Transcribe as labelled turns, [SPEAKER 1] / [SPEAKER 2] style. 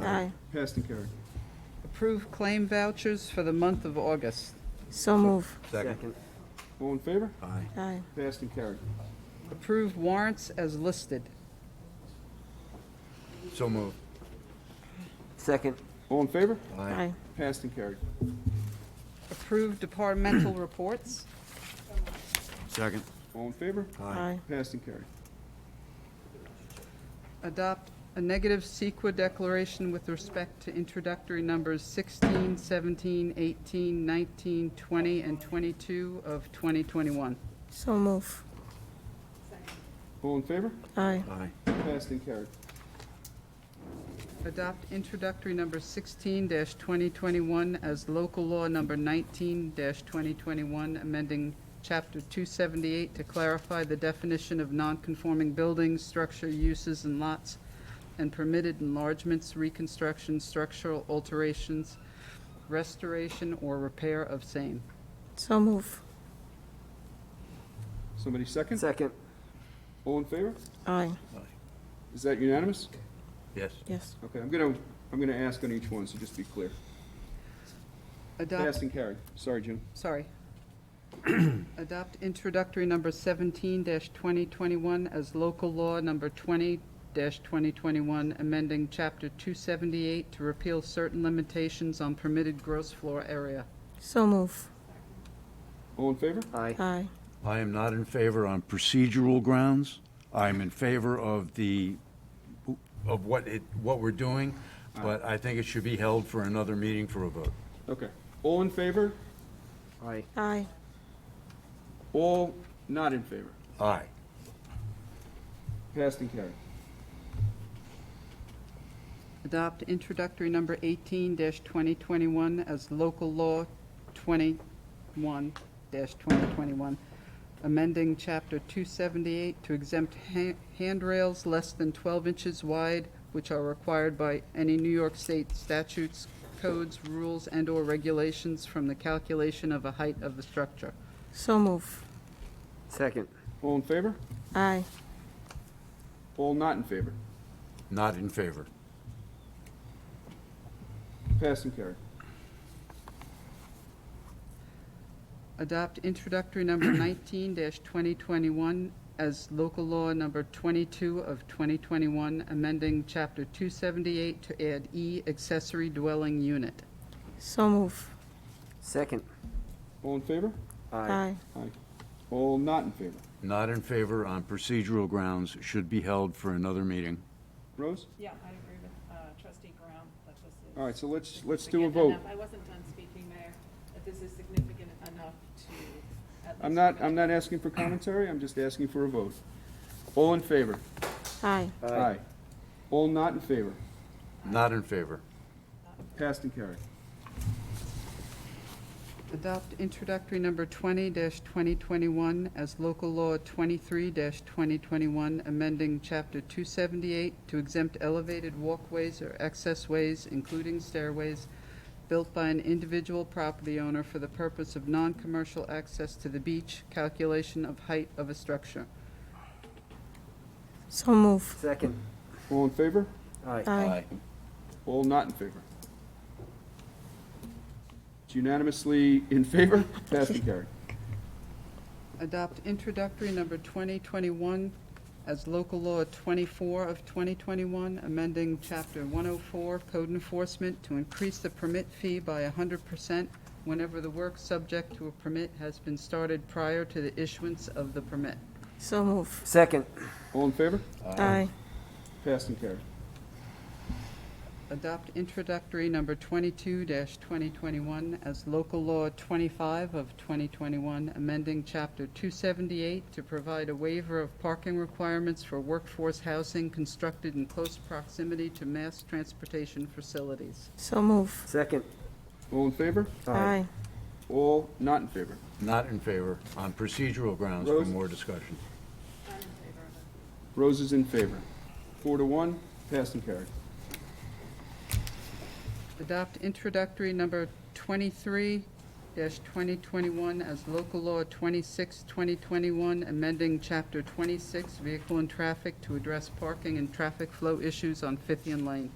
[SPEAKER 1] Aye.
[SPEAKER 2] Passed and carried.
[SPEAKER 3] Approve claim vouchers for the month of August.
[SPEAKER 1] So move.
[SPEAKER 4] Second.
[SPEAKER 2] All in favor?
[SPEAKER 4] Aye.
[SPEAKER 1] Aye.
[SPEAKER 2] Passed and carried.
[SPEAKER 3] Approve warrants as listed.
[SPEAKER 4] So moved.
[SPEAKER 5] Second.
[SPEAKER 2] All in favor?
[SPEAKER 1] Aye.
[SPEAKER 2] Passed and carried.
[SPEAKER 3] Approve departmental reports.
[SPEAKER 4] Second.
[SPEAKER 2] All in favor?
[SPEAKER 1] Aye.
[SPEAKER 2] Passed and carried.
[SPEAKER 3] Adopt a negative CEQA declaration with respect to introductory numbers 16, 17, 18, 19, 20, and 22 of 2021.
[SPEAKER 1] So move.
[SPEAKER 2] All in favor?
[SPEAKER 1] Aye.
[SPEAKER 4] Aye.
[SPEAKER 2] Passed and carried.
[SPEAKER 3] Adopt introductory number 16-2021 as local law number 19-2021, amending Chapter 278 to clarify the definition of nonconforming buildings, structure, uses, and lots, and permitted enlargements, reconstructions, structural alterations, restoration, or repair of same.
[SPEAKER 1] So move.
[SPEAKER 2] Somebody second?
[SPEAKER 5] Second.
[SPEAKER 2] All in favor?
[SPEAKER 1] Aye.
[SPEAKER 2] Is that unanimous?
[SPEAKER 4] Yes.
[SPEAKER 1] Yes.
[SPEAKER 2] Okay, I'm gonna, I'm gonna ask on each one, so just be clear.
[SPEAKER 3] Adopt
[SPEAKER 2] Passed and carried. Sorry, Jim.
[SPEAKER 3] sorry. Adopt introductory number seventeen twenty twenty-one as local law number twenty twenty twenty-one, amending chapter two seventy-eight to repeal certain limitations on permitted gross floor area.
[SPEAKER 1] So move.
[SPEAKER 2] All in favor?
[SPEAKER 5] Aye.
[SPEAKER 1] Aye.
[SPEAKER 4] I am not in favor on procedural grounds. I'm in favor of the, of what it, what we're doing, but I think it should be held for another meeting for a vote.
[SPEAKER 2] Okay. All in favor?
[SPEAKER 5] Aye.
[SPEAKER 1] Aye.
[SPEAKER 2] All not in favor?
[SPEAKER 4] Aye.
[SPEAKER 2] Passed and carried.
[SPEAKER 3] Adopt introductory number eighteen twenty twenty-one as local law twenty-one twenty twenty-one, amending chapter two seventy-eight to exempt ha- handrails less than twelve inches wide, which are required by any New York State statutes, codes, rules, and/or regulations from the calculation of a height of the structure.
[SPEAKER 1] So move.
[SPEAKER 5] Second.
[SPEAKER 2] All in favor?
[SPEAKER 1] Aye.
[SPEAKER 2] All not in favor?
[SPEAKER 4] Not in favor.
[SPEAKER 2] Passed and carried.
[SPEAKER 3] adopt introductory number 19-2021 as local law number 22 of 2021, amending Chapter 278 to add E accessory dwelling unit.
[SPEAKER 1] So move.
[SPEAKER 5] Second.
[SPEAKER 2] All in favor?
[SPEAKER 5] Aye.
[SPEAKER 1] Aye.
[SPEAKER 2] Aye. All not in favor?
[SPEAKER 4] Not in favor on procedural grounds should be held for another meeting.
[SPEAKER 2] Rose?
[SPEAKER 6] Yeah, I agree with uh, trustee Graham that this is.
[SPEAKER 2] All right, so let's, let's do a
[SPEAKER 6] significant
[SPEAKER 2] vote.
[SPEAKER 6] enough. I wasn't done speaking, Mayor, that this is significant enough to. at
[SPEAKER 2] I'm
[SPEAKER 6] least-
[SPEAKER 2] not, I'm not asking for commentary, I'm just asking for a vote. All in favor?
[SPEAKER 1] Aye.
[SPEAKER 2] Aye. All not in favor?
[SPEAKER 4] Not in favor.
[SPEAKER 2] Passed and carried.
[SPEAKER 3] Adopt introductory number 20-2021 as local law 23-2021, amending Chapter 278 to exempt elevated walkways or accessways, including stairways, built by an individual property owner for the purpose of non-commercial access to the beach, calculation of height of a structure.
[SPEAKER 1] So move.
[SPEAKER 5] Second.
[SPEAKER 2] All in favor?
[SPEAKER 5] Aye.
[SPEAKER 1] Aye.
[SPEAKER 2] All not in favor? It's unanimously in favor, passed and carried.
[SPEAKER 3] Adopt introductory number 2021 as local law 24 of 2021, amending Chapter 104 Code Enforcement to increase the permit fee by 100% whenever the work subject to a permit has been started prior to the issuance of the permit.
[SPEAKER 1] So move.
[SPEAKER 5] Second.
[SPEAKER 2] All in favor?
[SPEAKER 1] Aye.
[SPEAKER 2] Passed and carried.
[SPEAKER 3] Adopt introductory number 22-2021 as local law 25 of 2021, amending Chapter 278 to provide a waiver of parking requirements for workforce housing constructed in close proximity to mass transportation facilities.
[SPEAKER 1] So move.
[SPEAKER 5] Second.
[SPEAKER 2] All in favor?
[SPEAKER 1] Aye.
[SPEAKER 2] All not in favor?
[SPEAKER 4] Not in favor on procedural grounds for
[SPEAKER 2] Rose?
[SPEAKER 4] more discussion.
[SPEAKER 6] I'm in favor of it.
[SPEAKER 2] Rose is in favor. Four to one, passed and carried.
[SPEAKER 3] Adopt introductory number 23-2021 as local law 26-2021, amending Chapter 26 Vehicle and Traffic to address parking and traffic flow issues on Fithian Lane.